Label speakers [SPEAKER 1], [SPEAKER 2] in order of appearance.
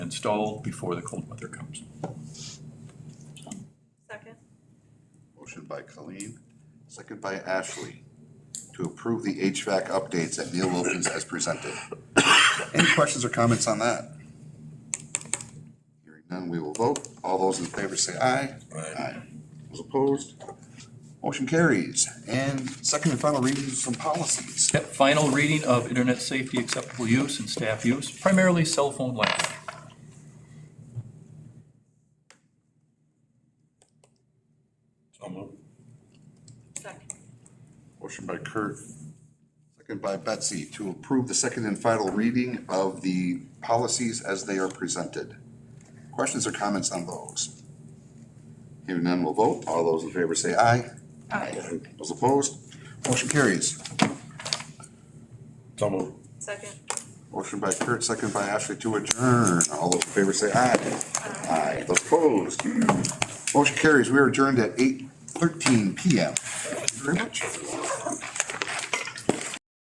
[SPEAKER 1] installed before the cold weather comes.
[SPEAKER 2] Second.
[SPEAKER 3] Motion by Colleen, second by Ashley, to approve the HVAC updates at Neil Wilkins as presented. Any questions or comments on that? Hearing none, we will vote. All those in favor say aye. Aye. Those opposed? Motion carries. And second and final readings from policies.
[SPEAKER 1] Yep, final reading of internet safety acceptable use and staff use, primarily cell phone language.
[SPEAKER 4] So moved.
[SPEAKER 2] Second.
[SPEAKER 3] Motion by Kurt, second by Betsy, to approve the second and final reading of the policies as they are presented. Questions or comments on those? Hearing none, we'll vote. All those in favor say aye. Aye. Those opposed? Motion carries.
[SPEAKER 4] So moved.
[SPEAKER 2] Second.
[SPEAKER 3] Motion by Kurt, second by Ashley to adjourn. All those in favor say aye. Aye. Those opposed? Motion carries. We are adjourned at eight thirteen PM. Thank you very much, everyone.